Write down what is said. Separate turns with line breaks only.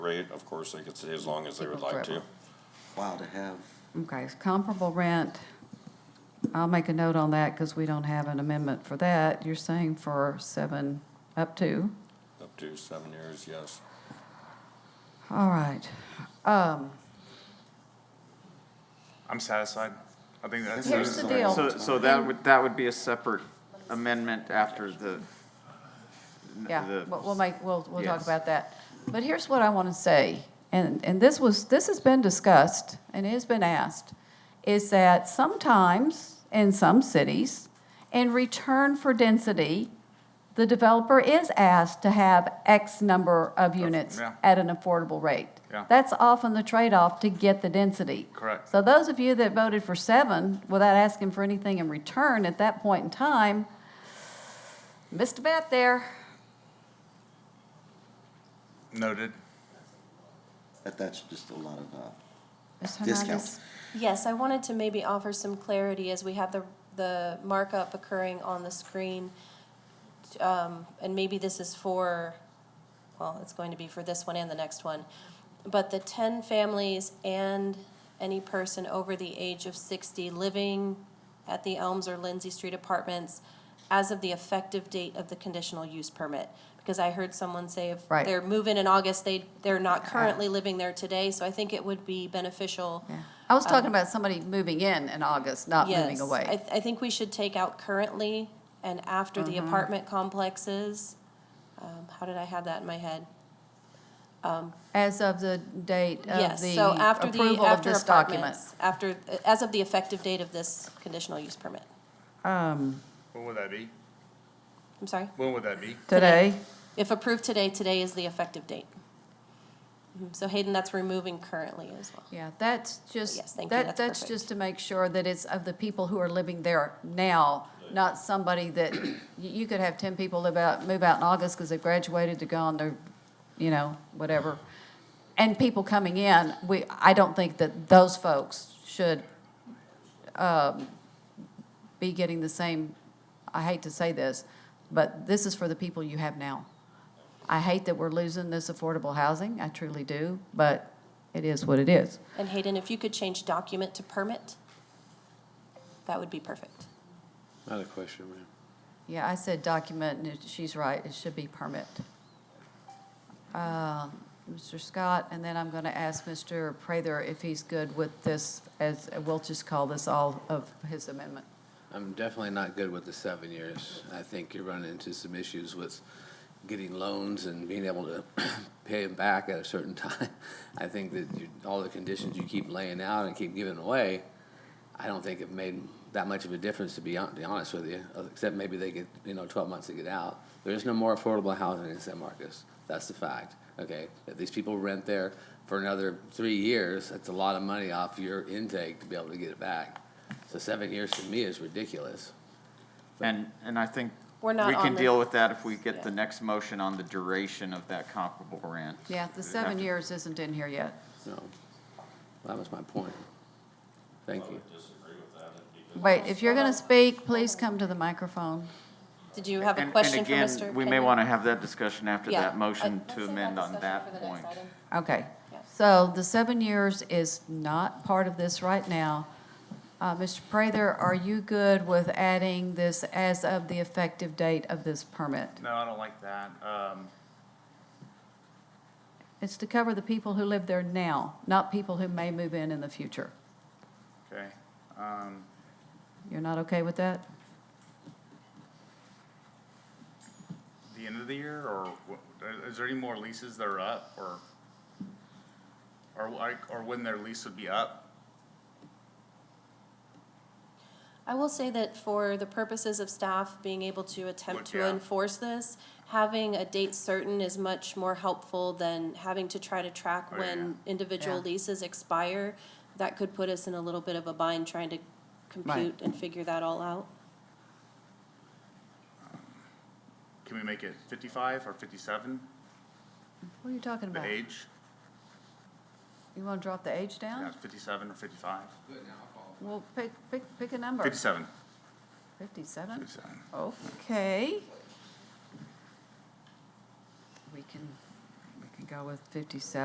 rate, of course, they could stay as long as they would like to.
Wow, to have,
Okay, it's comparable rent, I'll make a note on that because we don't have an amendment for that. You're saying for seven, up to,
Up to seven years, yes.
all right. Um,
I'm satisfied. I think that's.
Here's the deal.
So, so that would, that would be a separate amendment after the.
Yeah,
the-
we'll we'll make, we'll, we'll talk
Yes.
about that. But here's what I want to say, and, and this was, this has been discussed and it has been asked, is that sometimes in some cities, in return for density, the developer is asked to have X number of units
yeah.
at an affordable rate.
Yeah.
That's often the trade-off to get the density.
Correct.
So those of you that voted for seven without asking for anything in return at that point in time, missed a bet there.
Noted.
that that's just a lot of, uh,
Ms.
Discount.
Hernandez?
Yes, I wanted to maybe offer some clarity as we have the, the markup occurring on the screen. Um, and maybe this is for, well, it's going to be for this one and the next one. But the ten families and any person over the age of sixty living at the Elms or Lindsay Street Apartments as of the effective date of the conditional use permit. Because I heard someone say if
Right.
they're moving in August, they, they're not currently living there today, so I think it would be beneficial
I was talking about somebody moving in in August, not moving
Yes, I,
away.
th- I think we should take out currently and after
Mm-hmm.
the apartment complexes. Um, how did I have that in my head?
As of the date of
Yes,
the
so after the,
approval of
after
this document.
apartments, after, as of the effective date of this conditional use permit.
Um,
When would that be?
I'm sorry,
When would that be?
Today,
if approved today, today is the effective date. Mhm, So Hayden, that's removing currently as well.
yeah, that's
Yes,
just,
thank you,
that,
that's
that's
perfect.
just to make sure that it's of the people who are living there now, not somebody that, you, you could have ten people live out, move out in August because they've graduated, they're gone, they're, you know, whatever. And people coming in, we, I don't think that those folks should um, be getting the same, I hate to say this, but this is for the people you have now. I hate that we're losing this affordable housing, I truly do, but it is what it is.
And Hayden, if you could change document to permit, that would be perfect.
I had a question, ma'am.
Yeah, I said document, and it- she's right, it should be permit. Uh, Mr. Scott, and then I'm going to ask Mr. Prather if he's good with this, as, we'll just call this all of his amendment.
I'm definitely not good with the seven years. I think you run into some issues with getting loans and being able to pay them back at a certain time. I think that you, all the conditions you keep laying out and keep giving away, I don't think have made that much of a difference, to be hon- be honest with you, uh, except maybe they get, you know, twelve months to get out. There is no more affordable housing in San Marcos. That's the fact, okay? If these people rent there for another three years, that's a lot of money off your intake to be able to get it back. So seven years to me is ridiculous.
And, and I think
We're
we
not on
can
the-
deal with that if we get
Yeah.
the next motion on the duration of that comparable rent.
Yeah, the seven years isn't in here yet.
So that was my point. Thank you.
Wait, if you're going to speak, please come to the microphone.
Did you have
And-
a question for Mr.
And again, we may
Hayden?
want to have that discussion after
Yeah.
that motion
Uh, let's
to
save
amend on
discussion for
that
the next
point.
item.
Okay,
Yeah.
so the seven years is not part of this right now. Uh, Mr. Prather, are you good with adding this as of the effective date of this permit?
No, I don't like that. Um,
It's to cover the people who live there now, not people who may move in in the future.
okay. Um,
You're not okay with that?
the end of the year or wh- is there any more leases that are up or? Or like, or when their lease would be up?
I will say that for the purposes of staff being able to attempt to
Yeah.
enforce this, having a date certain is much more helpful than having to try to track
Oh,
when individual
Yeah.
leases expire. That could put us in a little bit of a bind trying to compute and figure that all out.
Can we make it fifty-five or fifty-seven,
What are you talking
the
about?
age?
You want to drop the age
Yeah,
down?
fifty-seven or fifty-five?
Well, pick, pick, pick a number.
Fifty-seven.
Fifty-seven?
Fifty-seven.
Okay. We can, we can go with fifty-seven.